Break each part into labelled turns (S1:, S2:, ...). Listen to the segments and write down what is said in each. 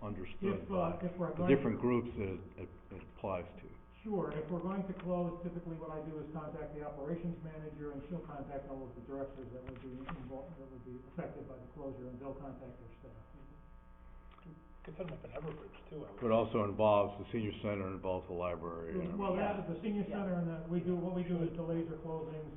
S1: understood
S2: If,
S1: by
S2: uh, if we're
S1: the
S2: going,
S1: different groups that it, it it applies to.
S2: sure, if we're going to close, typically what I do is contact the operations manager and she'll contact all of the directors that would be involved, that would be affected by the closure and they'll contact their staff.
S3: Could set them up in Everbridge too, I would.
S1: But also involves the senior center, involves the library. and
S2: Well,
S1: everything.
S2: that's at the senior
S4: Yeah.
S2: center and that we do, what we do is delays or closings.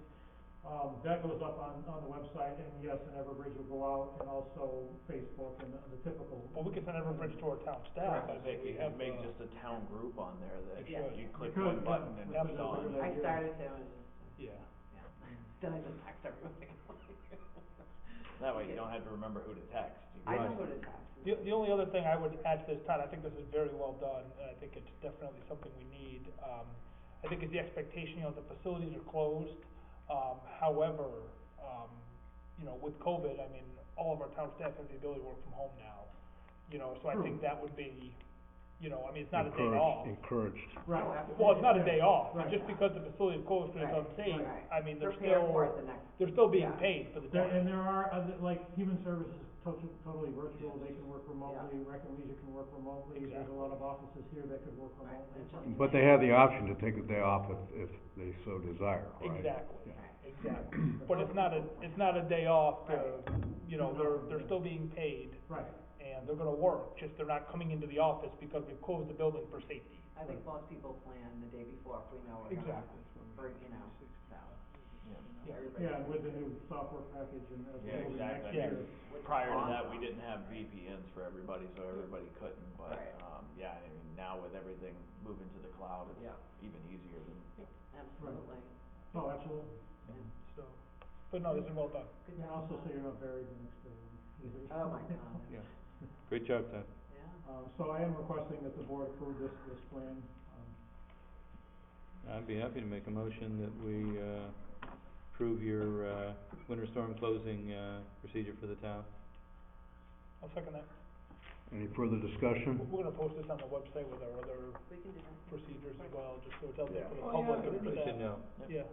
S2: Um, that goes up on, on the website and yes, and Everbridge will go out and also Facebook and the the typical.
S3: Well, we could send Everbridge to our town staff, I
S5: Perhaps
S3: think
S5: Make,
S3: we
S5: you
S3: have,
S5: could make
S3: uh,
S5: just a town group on there that
S3: Yeah.
S5: you click
S2: Because,
S5: one
S2: yeah,
S5: button and
S2: which is a
S5: it's on.
S2: good
S4: I
S2: idea.
S4: started to, and just,
S3: yeah.
S4: yeah, then I just text everybody.
S5: That way you don't have to remember who to text. You
S4: I
S5: can
S4: know what
S5: just-
S4: it has.
S3: The, the only other thing I would add to this, Todd, I think this is very well done, and I think it's definitely something we need. Um, I think it's the expectation, you know, the facilities are closed, um, however, um, you know, with COVID, I mean, all of our town staff have the ability to work from home now. You know, so I think that would be, you know, I mean, it's not a day
S1: Encouraged-
S3: off.
S1: Encouraged.
S2: Right.
S4: Oh, absolutely.
S3: Well, it's not a day off,
S2: Right.
S3: just because the facility is closed because it's
S4: Right,
S3: unsafe,
S4: right.
S3: I mean, they're
S4: Prepare
S3: still,
S4: for it the next,
S3: they're still being
S4: Yeah.
S3: paid for the
S2: There,
S3: day.
S2: and there are, other- like, human services is totally, totally virtual, they can work remotely, rec and leisure can work remotely, there's a lot of offices here that could work
S4: Right,
S2: remotely.
S4: it's
S2: from-
S4: just-
S1: But they have the option to take a day off if, if they so desire, right?
S3: Exactly,
S1: Yeah.
S3: exactly, but it's not a, it's not a day off to, you know, they're, they're still being paid
S2: Right,
S3: and they're gonna work, just they're not coming into the office because we've closed the building for safety.
S4: I think most people plan the day before if we know we're gonna, for, you know, so.
S3: Yeah.
S4: everybody-
S2: yeah, and with the new software package and as
S5: Yeah,
S2: we're moving next
S5: exactly.
S3: Yeah.
S2: year.
S4: Which is
S5: Prior to
S4: awesome.
S5: that, we didn't have VPNs for everybody, so everybody couldn't, but,
S4: Right.
S5: um, yeah, I mean, now with everything moving to the cloud, it's
S4: Yeah,
S5: even easier than.
S4: absolutely.
S2: Oh, absolutely,
S3: So, but no, this is well done.
S4: Good
S2: and
S4: job.
S2: also so you're not buried the next day.
S4: Oh, my God,
S1: Yeah. Great job, Ted.
S4: yeah.
S2: Uh, so I am requesting that the board approve this, this plan, um,
S6: I'd be happy to make a motion that we, uh, approve your, uh, winter storm closing, uh, procedure for the town.
S3: I'll second that.
S1: Any further discussion?
S3: We're gonna post this on the website with our other
S4: We can do that.
S3: procedures as well, just so it's out there for the
S6: Oh, yeah,
S3: public and for
S6: everybody should
S3: that.
S6: know.
S3: Yeah,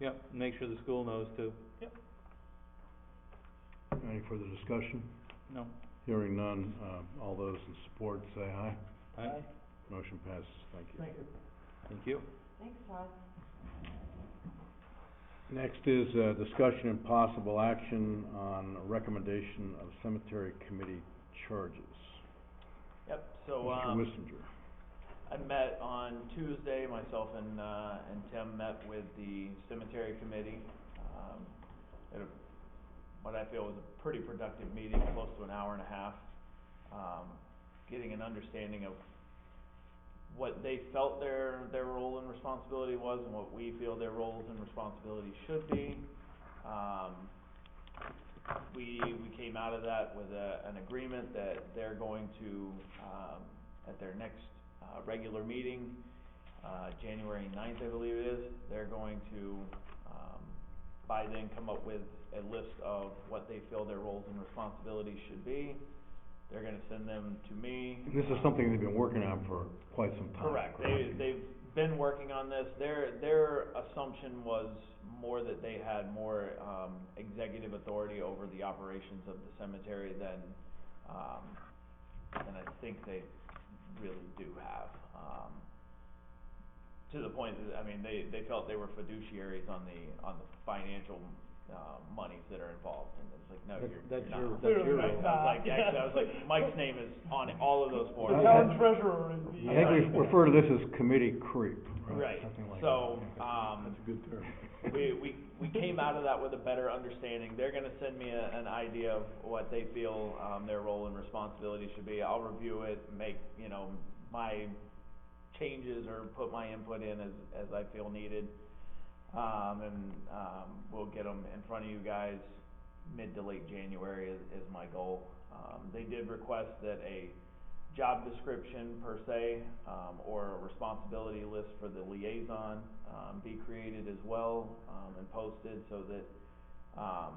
S6: Yep, make sure the school knows too.
S1: Any further discussion?
S6: No.
S1: Hearing none, uh, all those in support say aye.
S6: Aye.
S3: Aye.
S1: Motion passes, thank you.
S2: thank you.
S6: Thank you.
S4: Thanks, Todd.
S1: Next is, uh, discussion and possible action on recommendation of cemetery committee charges.
S5: Yep, so,
S1: Mr.
S5: um.
S1: Wissinger.
S5: I met on Tuesday, myself and, uh, and Tim met with the cemetery committee. Um, at a, what I feel was a pretty productive meeting, close to an hour and a half. Um, getting an understanding of what they felt their, their role and responsibility was and what we feel their roles and responsibilities should be. Um, we, we came out of that with a, an agreement that they're going to, um, at their next, uh, regular meeting, uh, January ninth, I believe it is, they're going to, um, by then come up with a list of what they feel their roles and responsibilities should be. They're gonna send them to me.
S1: This is something they've been working on for quite some time.
S5: Correct, they, they've been working on this, their, their assumption was more that they had more, um, executive authority over the operations of the cemetery than, um, than I think they really do have, um, to the point that, I mean, they, they felt they were fiduciaries on the, on the financial, uh, monies that are involved, and it's like, no,
S6: That-
S5: you're,
S6: That's
S5: you're not.
S6: your, that's
S3: Clearly
S6: your
S3: not.
S6: role.
S5: I was like, actually, I was like, Mike's name is on all of those
S3: the
S5: boards.
S1: I-
S3: town treasurer is the.
S1: I think we refer to this as committee creep, right?
S5: Right.
S1: Something like
S5: So,
S1: that.
S5: um,
S1: That's a good term.
S5: we, we, we came out of that with a better understanding. They're gonna send me a, an idea of what they feel, um, their role and responsibility should be. I'll review it, make, you know, my changes or put my input in as, as I feel needed. Um, and, um, we'll get them in front of you guys mid to late January is, is my goal. Um, they did request that a job description per se, um, or a responsibility list for the liaison, um, be created as well, um, and posted so that, um,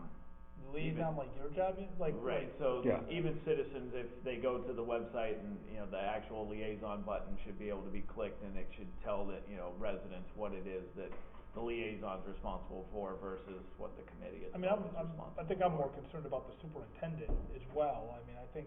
S3: Liaison, like your job, is- like,
S5: right, so
S1: Yeah.
S5: even citizens, if they go to the website and, you know, the actual liaison button should be able to be clicked and it should tell that, you know, residents what it is that the liaison's responsible for versus what the committee is
S3: I mean, I'm,
S5: responsible
S3: I'm, I think I'm more concerned about the superintendent as well, I mean, I think